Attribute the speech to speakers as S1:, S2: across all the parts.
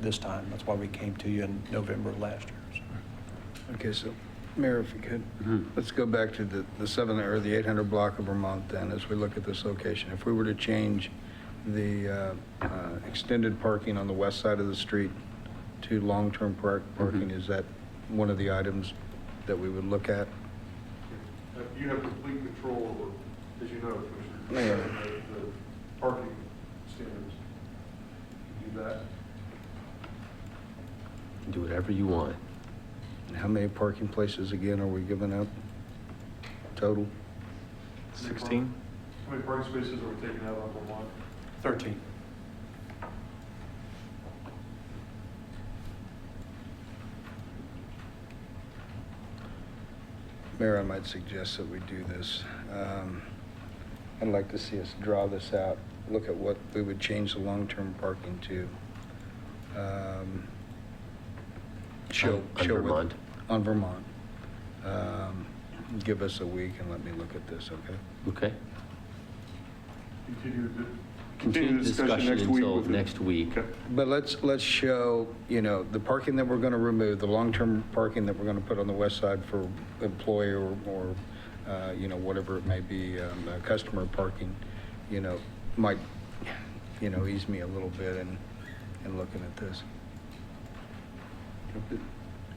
S1: this time. That's why we came to you in November of last year.
S2: Okay, so, Mayor, if you could, let's go back to the, the seven, or the 800 block of Vermont then, as we look at this location. If we were to change the uh, uh, extended parking on the west side of the street to long-term park, parking, is that one of the items that we would look at?
S3: Uh, You have complete control over, as you know, Commissioner,
S2: Yeah.
S3: the the parking standards. You Do that.
S4: Do whatever you want.
S2: And how many parking places, again, are we giving up total?
S3: Sixteen? How many parking spaces are we taking out on Vermont?
S1: 13.
S2: Mayor, I might suggest that we do this. Um, I'd like to see us draw this out, look at what we would change the long-term parking to. Um, Show,
S4: On- on
S2: show. what-
S4: Vermont?
S2: On Vermont. Um, Give us a week and let me look at this, okay?
S4: Okay?
S3: Continue the.
S4: Continue the discussion
S3: next week
S4: until
S3: with the-
S4: next week.
S3: Okay.
S2: But let's, let's show, you know, the parking that we're going to remove, the long-term parking that we're going to put on the west side for employee or, or, uh, you know, whatever it may be, um, uh, customer parking, you know, might, you know, ease me a little bit in, in looking at this.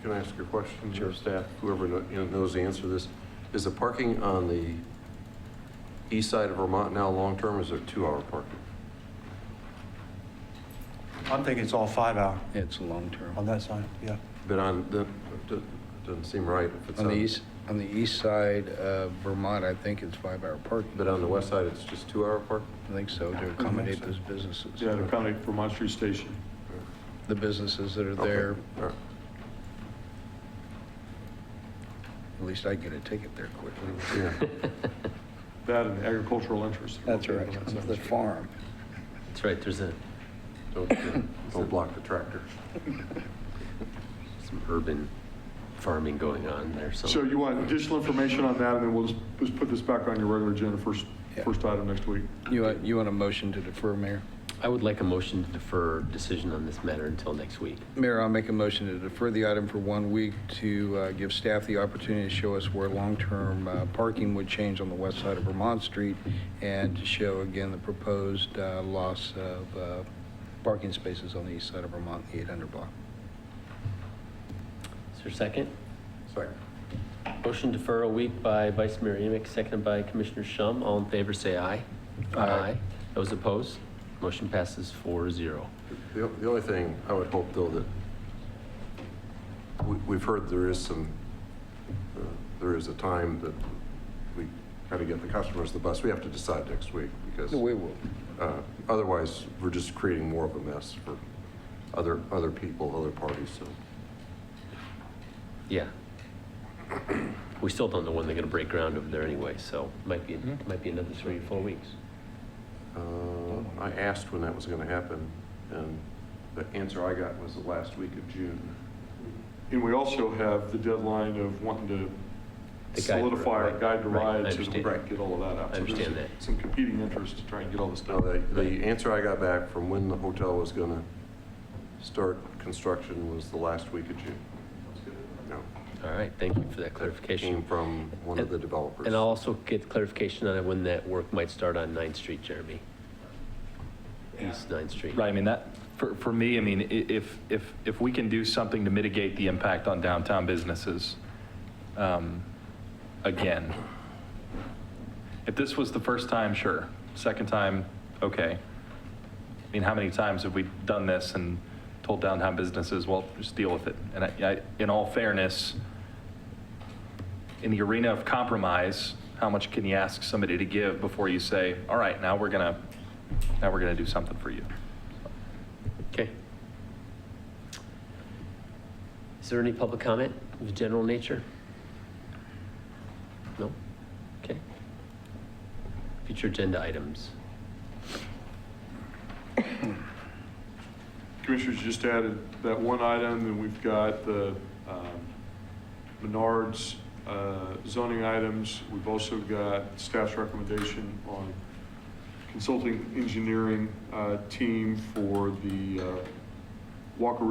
S5: Can I ask a question?
S2: Sure.
S5: Your staff, whoever kno- you know, knows the answer to this, is the parking on the east side of Vermont now long-term, or is there two-hour parking?
S1: I'm thinking it's all five hour
S2: It's
S1: on
S2: long-term.
S1: that side, yeah.
S5: But on, the- do- doesn't seem right if it's
S2: On
S5: on.
S2: the east, on the east side of Vermont, I think it's five-hour parking.
S5: But on the west side, it's just two-hour parking?
S2: I think so, to accommodate those businesses.
S6: Yeah, to accommodate Vermont Street Station.
S2: The businesses that are
S5: Okay,
S2: there,
S5: all right.
S2: at least I get a ticket there quickly.
S5: Yeah.
S6: That and agricultural interest.
S2: That's right, the farm.
S4: That's right, there's a,
S5: Don't, uh, don't block the tractor.
S4: some urban farming going on there, so.
S6: So you want additional information on that, and then we'll just, just put this back on your regular agenda first,
S2: Yeah.
S6: first item next week.
S2: You want, you want a motion to defer, Mayor?
S4: I would like a motion to defer decision on this matter until next week.
S2: Mayor, I'll make a motion to defer the item for one week to uh, give staff the opportunity to show us where long-term uh, parking would change on the west side of Vermont Street and to show again the proposed uh, loss of uh, parking spaces on the east side of Vermont, the 800 block.
S4: Is there a second?
S5: Second.
S4: Motion to defer a week by Vice Mayor Emick, seconded by Commissioner Shum. All in favor, say aye.
S2: Aye.
S4: Those opposed? Motion passes 4-0.
S5: The the only thing I would hope, though, that we- we've heard there is some, uh, there is a time that we kind of get the customers the bus. We have to decide next week because
S2: We will.
S5: uh, otherwise, we're just creating more of a mess for other, other people, other parties, so.
S4: Yeah. We still don't know when they're gonna break ground over there anyway, so might be, might be another three or four weeks.
S5: uh, I asked when that was going to happen, and the answer I got was the last week of June.
S6: And we also have the deadline of wanting
S4: The
S6: to
S4: guide to
S6: solidify our
S4: ride.
S6: guide to
S4: Right, I
S6: ride so that we
S4: understand.
S6: can get all of that
S4: I
S6: out. So there's
S4: understand that.
S6: Some competing interests to try and get all this
S5: No,
S6: done.
S5: the, the answer I got back from when the hotel was gonna start construction was the last week of June. No,
S4: All right, thank you for that
S5: Came
S4: clarification.
S5: from one of the developers.
S4: And I'll also get clarification on when that work might start on 9th Street, Jeremy. East 9th Street.
S7: Right, I mean, that, for, for me, I mean, i- if, if, if we can do something to mitigate the impact on downtown businesses, um, again, if this was the first time, sure. Second time, okay. I mean, how many times have we done this and told downtown businesses, well, just deal with it? And I, I- in all fairness, in the arena of compromise, how much can you ask somebody to give before you say, all right, now we're gonna, now we're gonna do something for you?
S4: Okay. Is there any public comment of a general nature? No? Okay. Future agenda items.
S6: Commissioners just added that one item, and we've got the um, Menards uh, zoning items. We've also got staff's recommendation on consulting engineering uh, team for the uh, Walker